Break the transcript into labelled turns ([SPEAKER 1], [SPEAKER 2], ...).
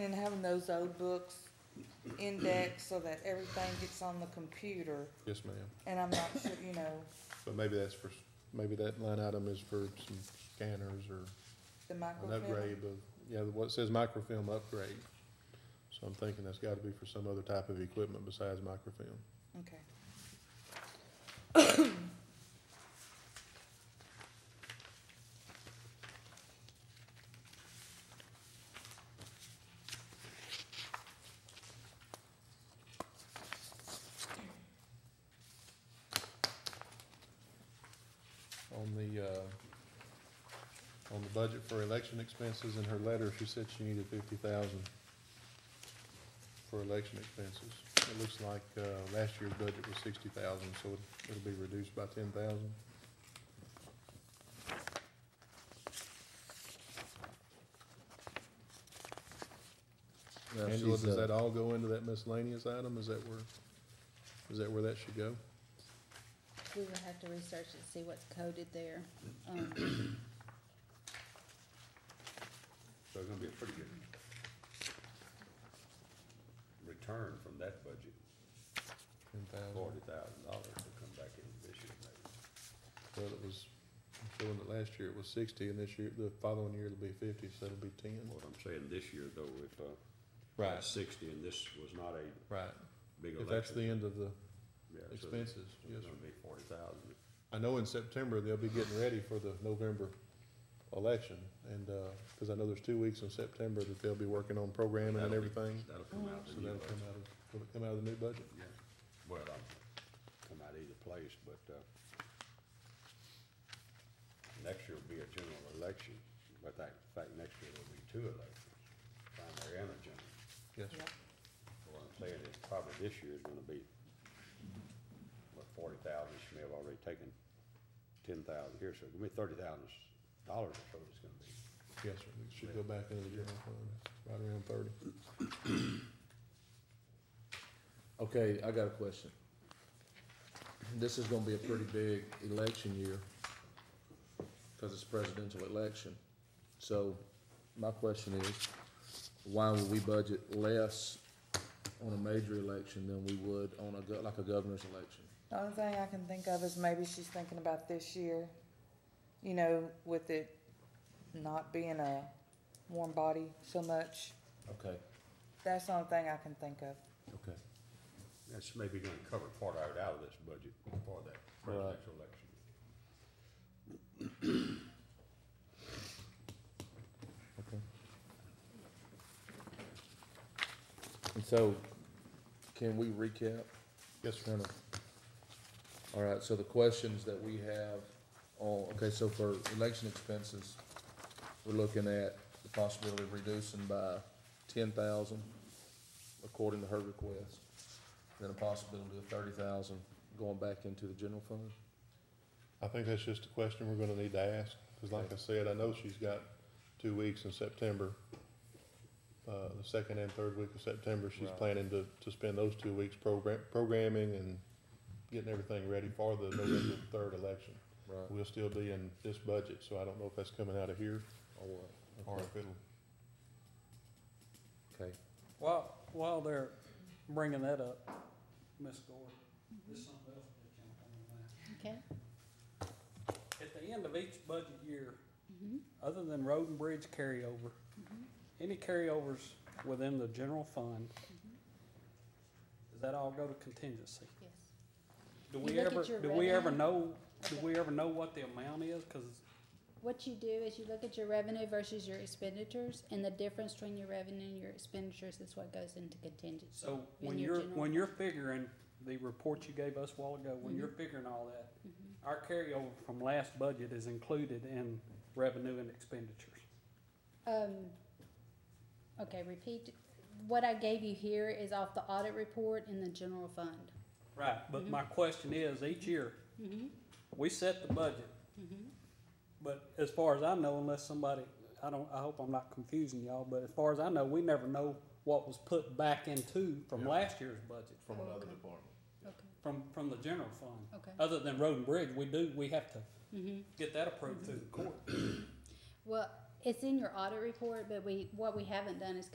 [SPEAKER 1] recommend having those old books indexed so that everything gets on the computer,
[SPEAKER 2] Yes, ma'am.
[SPEAKER 1] and I'm not sure, you know,
[SPEAKER 2] But maybe that's for, maybe that line item is for some scanners or
[SPEAKER 1] the
[SPEAKER 2] an upgrade
[SPEAKER 1] microfilm.
[SPEAKER 2] of, yeah, what it says microfilm upgrade. So I'm thinking that's gotta be for some other type of equipment besides microfilm.
[SPEAKER 1] Okay.
[SPEAKER 2] On the, uh, on the budget for election expenses, in her letter, she said she needed fifty thousand for election expenses. It looks like, uh, last year's budget was sixty thousand, so it- it'll be reduced by ten thousand.
[SPEAKER 3] Now,
[SPEAKER 2] Angela,
[SPEAKER 3] she's,
[SPEAKER 2] does
[SPEAKER 3] uh,
[SPEAKER 2] that all go into that miscellaneous item? Is that where, is that where that should go?
[SPEAKER 4] We will have to research and see what's coded there. Um,
[SPEAKER 5] So it's gonna be a pretty good return from that budget,
[SPEAKER 2] Ten thousand.
[SPEAKER 5] forty thousand dollars to come back in this year maybe.
[SPEAKER 2] Well, it was, I'm showing that last year it was sixty, and this year, the following year it'll be fifty, so it'll be ten.
[SPEAKER 5] What I'm saying this year though, if, uh, it's sixty and this was not a
[SPEAKER 2] Right.
[SPEAKER 5] big election.
[SPEAKER 2] If that's the end of the
[SPEAKER 5] yeah, so
[SPEAKER 2] expenses, yes.
[SPEAKER 5] It's gonna be forty thousand.
[SPEAKER 2] I know in September, they'll be getting ready for the November election, and, uh 'cause cause I know there's two weeks in September that they'll be working on programming and
[SPEAKER 5] That'll be-
[SPEAKER 2] everything.
[SPEAKER 5] That'll come out
[SPEAKER 2] So
[SPEAKER 5] of the new
[SPEAKER 2] that'll come out
[SPEAKER 5] budget.
[SPEAKER 2] of, will it come out of the new budget?
[SPEAKER 5] Yeah, well, I'll come out either place, but, uh, next year will be a general election, but that, in fact, next year will be two elections, primary and a general.
[SPEAKER 2] Yes,
[SPEAKER 1] Yeah.
[SPEAKER 5] What I'm saying is probably this year is gonna be, what, forty thousand, she may have already taken ten thousand here, so it's gonna be thirty thousand dollars or so it's gonna be.
[SPEAKER 2] yes, sir. It should go back into the general fund,
[SPEAKER 3] uh,
[SPEAKER 2] right around thirty.
[SPEAKER 3] Okay, I got a question. This is gonna be a pretty big election year, cause it's presidential election. So, my question is, why would we budget less on a major election than we would on a, go- like a governor's election?
[SPEAKER 1] The only thing I can think of is maybe she's thinking about this year, you know, with it not being a warm body so much.
[SPEAKER 3] Okay,
[SPEAKER 1] That's the only thing I can think of.
[SPEAKER 3] okay.
[SPEAKER 5] That's maybe gonna cover part of it out of this budget for that presidential election.
[SPEAKER 3] And so, can we recap?
[SPEAKER 2] Yes, sir.
[SPEAKER 3] Kind of. All right, so the questions that we have, on okay, so for election expenses, we're looking at the possibility of reducing by ten thousand, according to her request. Then a possibility of thirty thousand going back into the general fund?
[SPEAKER 2] I think that's just a question we're gonna need to ask, because like I said, I know she's got two weeks in September. Uh, the second and third week of September, she's
[SPEAKER 3] Right.
[SPEAKER 2] planning to, to spend those two weeks program, programming and getting everything ready for the November third election.
[SPEAKER 3] Right.
[SPEAKER 2] We'll still be in this budget, so I don't know if that's coming out of here
[SPEAKER 3] Or what?
[SPEAKER 2] or if it'll,
[SPEAKER 3] Okay,
[SPEAKER 6] While, while they're bringing that up, Ms. Gore, there's something else that came up on that.
[SPEAKER 4] Okay?
[SPEAKER 6] At the end of each budget year,
[SPEAKER 4] Mhm.
[SPEAKER 6] other than road and bridge carryover,
[SPEAKER 4] Mm-hmm.
[SPEAKER 6] any carryovers within the general fund,
[SPEAKER 4] Mm-hmm.
[SPEAKER 6] does that all go to contingency?
[SPEAKER 4] Yes.
[SPEAKER 6] Do
[SPEAKER 4] You
[SPEAKER 6] we
[SPEAKER 4] look at
[SPEAKER 6] ever,
[SPEAKER 4] your
[SPEAKER 6] do we
[SPEAKER 4] revenue.
[SPEAKER 6] ever know, do
[SPEAKER 4] Okay.
[SPEAKER 6] we ever know what the amount is? Cause
[SPEAKER 4] What you do is you look at your revenue versus your expenditures, and the difference between your revenue and your expenditures is what goes into contingency.
[SPEAKER 6] so when
[SPEAKER 4] In your
[SPEAKER 6] you're,
[SPEAKER 4] general-
[SPEAKER 6] when you're figuring the report you gave us a while ago, when
[SPEAKER 4] Mhm.
[SPEAKER 6] you're figuring all that,
[SPEAKER 4] Mhm.
[SPEAKER 6] our carryover from last budget is included in revenue and expenditures.
[SPEAKER 4] Um, okay, repeat, what I gave you here is off the audit report in the general fund.
[SPEAKER 6] Right, but my question is, each year,
[SPEAKER 4] Mm-hmm,
[SPEAKER 6] we set the budget,
[SPEAKER 4] mm-hmm.
[SPEAKER 6] but as far as I know, unless somebody, I don't, I hope I'm not confusing y'all, but as far as I know, we never know what was put back into from
[SPEAKER 2] Yeah.
[SPEAKER 6] last year's budget,
[SPEAKER 2] from
[SPEAKER 4] Oh,
[SPEAKER 2] another
[SPEAKER 4] okay.
[SPEAKER 2] department.
[SPEAKER 4] Okay,
[SPEAKER 6] from, from the general fund.
[SPEAKER 4] okay.
[SPEAKER 6] Other than road and bridge, we do, we have to
[SPEAKER 4] Mm-hmm.
[SPEAKER 6] get that approved through the court.
[SPEAKER 4] Well, it's in your audit report, but we, what we haven't done is